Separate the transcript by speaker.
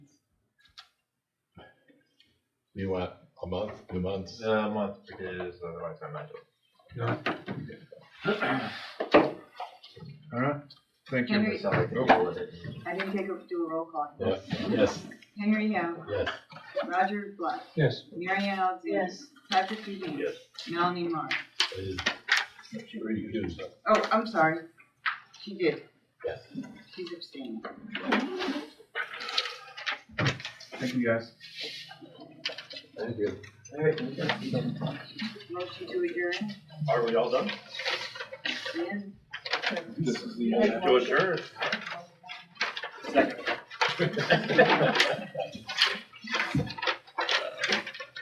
Speaker 1: You want a month, two months?
Speaker 2: A month is uh, otherwise I'm not doing. Alright, thank you.
Speaker 3: Henry.
Speaker 2: That's all I can do with it.
Speaker 3: I didn't take a, do a roll call.
Speaker 1: Yeah. Yes,
Speaker 3: Henry Hill,
Speaker 1: yes.
Speaker 3: Roger Black,
Speaker 4: Yes.
Speaker 3: Mary Ann Alexander. Patrick Dugan.
Speaker 1: Yes.
Speaker 3: Melanie Marr.
Speaker 1: it is recused.
Speaker 3: Oh, I'm sorry. She did.
Speaker 1: Yes.
Speaker 3: She's abstaining.
Speaker 2: Thank you, guys.
Speaker 1: Thank you.
Speaker 3: Motion to adjourn.
Speaker 5: Are we all done?
Speaker 3: Yes.
Speaker 5: This is the. To adjourn. Second.